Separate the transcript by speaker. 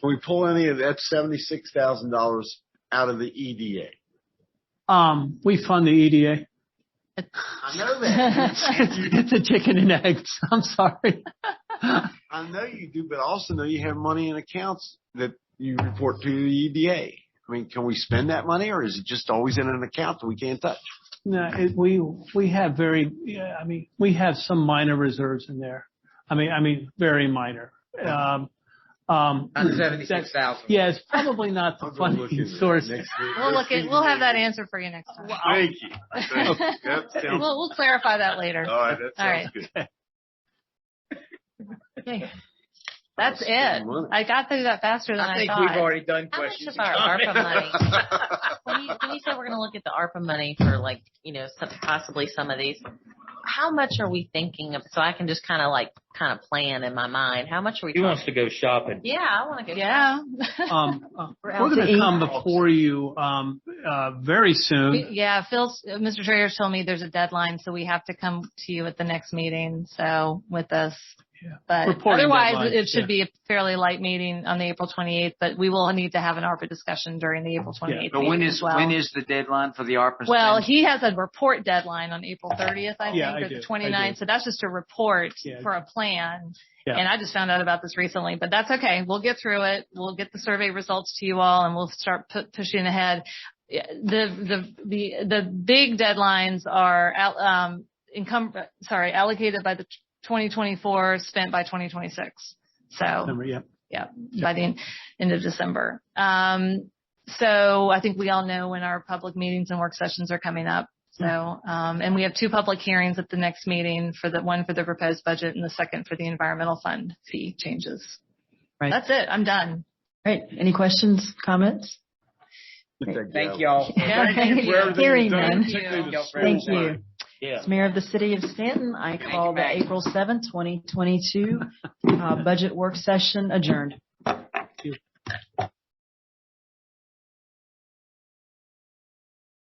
Speaker 1: Can we pull any of that seventy-six thousand dollars out of the E EDA?
Speaker 2: Um, we fund the EDA.
Speaker 1: I know
Speaker 2: It's a chicken and eggs. I'm sorry.
Speaker 1: I know you do, but I also know you have money in accounts that you report to the EDA. I mean, can we spend that money or is it just always in an account that we can't touch?
Speaker 2: No, it, we, we have very, yeah, I mean, we have some minor reserves in there. I mean, I mean, very minor. Um, um,
Speaker 3: Not seventy-six thousand.
Speaker 2: yeah, it's probably not the
Speaker 1: I'll go look
Speaker 2: funding
Speaker 1: into that
Speaker 2: source.
Speaker 1: next week.
Speaker 4: We'll look at, we'll have that answer for you next time.
Speaker 1: Thank you. Thank you. That sounds-
Speaker 4: We'll, we'll clarify that later.
Speaker 1: All right, that
Speaker 4: All right.
Speaker 1: sounds good.
Speaker 4: Okay. That's
Speaker 1: Spend
Speaker 4: it.
Speaker 1: money.
Speaker 4: I got through that faster than
Speaker 3: I
Speaker 4: I
Speaker 3: think we've
Speaker 4: thought.
Speaker 3: already done
Speaker 5: How much
Speaker 3: questions.
Speaker 5: of our ARPA money? When you, when you say we're gonna look at the ARPA money for like, you know, some, possibly some of these, how much are we thinking of, so I can just kinda like, kinda plan in my mind, how much are we
Speaker 6: He wants
Speaker 5: talking?
Speaker 6: to go shopping.
Speaker 5: Yeah, I wanna go.
Speaker 4: Yeah.
Speaker 2: Um, uh,
Speaker 4: We're out
Speaker 2: we're
Speaker 4: to
Speaker 2: going to
Speaker 4: eat.
Speaker 2: come before you, um, uh, very soon.
Speaker 4: Yeah, Phil's, uh, Mr. Traeger's told me there's a deadline, so we have to come to you at the next meeting, so with us.
Speaker 2: Yeah.
Speaker 4: But
Speaker 2: Reporting
Speaker 4: otherwise,
Speaker 2: deadlines,
Speaker 4: it should
Speaker 2: yeah.
Speaker 4: be a fairly light meeting on the April 28th, but we will need to have an ARPA discussion during the April 28th
Speaker 7: But when
Speaker 4: meeting
Speaker 7: is,
Speaker 4: as well.
Speaker 7: when is the deadline for the ARPA?
Speaker 4: Well,
Speaker 7: spending?
Speaker 4: he has a report deadline on April 30th, I
Speaker 2: Uh-huh. Yeah, I
Speaker 4: think, or
Speaker 2: do. I
Speaker 4: the
Speaker 2: do.
Speaker 4: 29th. So that's just a report
Speaker 2: Yeah.
Speaker 4: for a plan.
Speaker 2: Yeah.
Speaker 4: And I just found out about this recently, but that's okay. We'll get through it. We'll get the survey results to you all and we'll start pu- pushing ahead. Yeah, The, the, the, the big deadlines are, al- um, income, sorry, allocated by the 2024, spent by 2026. So
Speaker 2: Remember, yeah.
Speaker 4: by the en- end of December. Um, so I think we all know when our public meetings and work sessions are coming up. So, um, and we have two public hearings at the next meeting for the one for the proposed budget and the second for the environmental fund fee changes.
Speaker 8: Right.
Speaker 4: That's it. I'm done.
Speaker 8: Right. Any questions, comments?
Speaker 3: Thank y'all.
Speaker 4: Yeah.
Speaker 1: Thank you for everything
Speaker 8: Hearing
Speaker 1: you've done,
Speaker 8: them.
Speaker 1: particularly the
Speaker 3: Thank you.
Speaker 8: Thank
Speaker 1: school.
Speaker 8: you.
Speaker 6: Yeah.
Speaker 8: As mayor of the city of Stanton, I call the
Speaker 3: Mayor.
Speaker 8: April seventh, twenty 2022 uh, budget work session adjourned.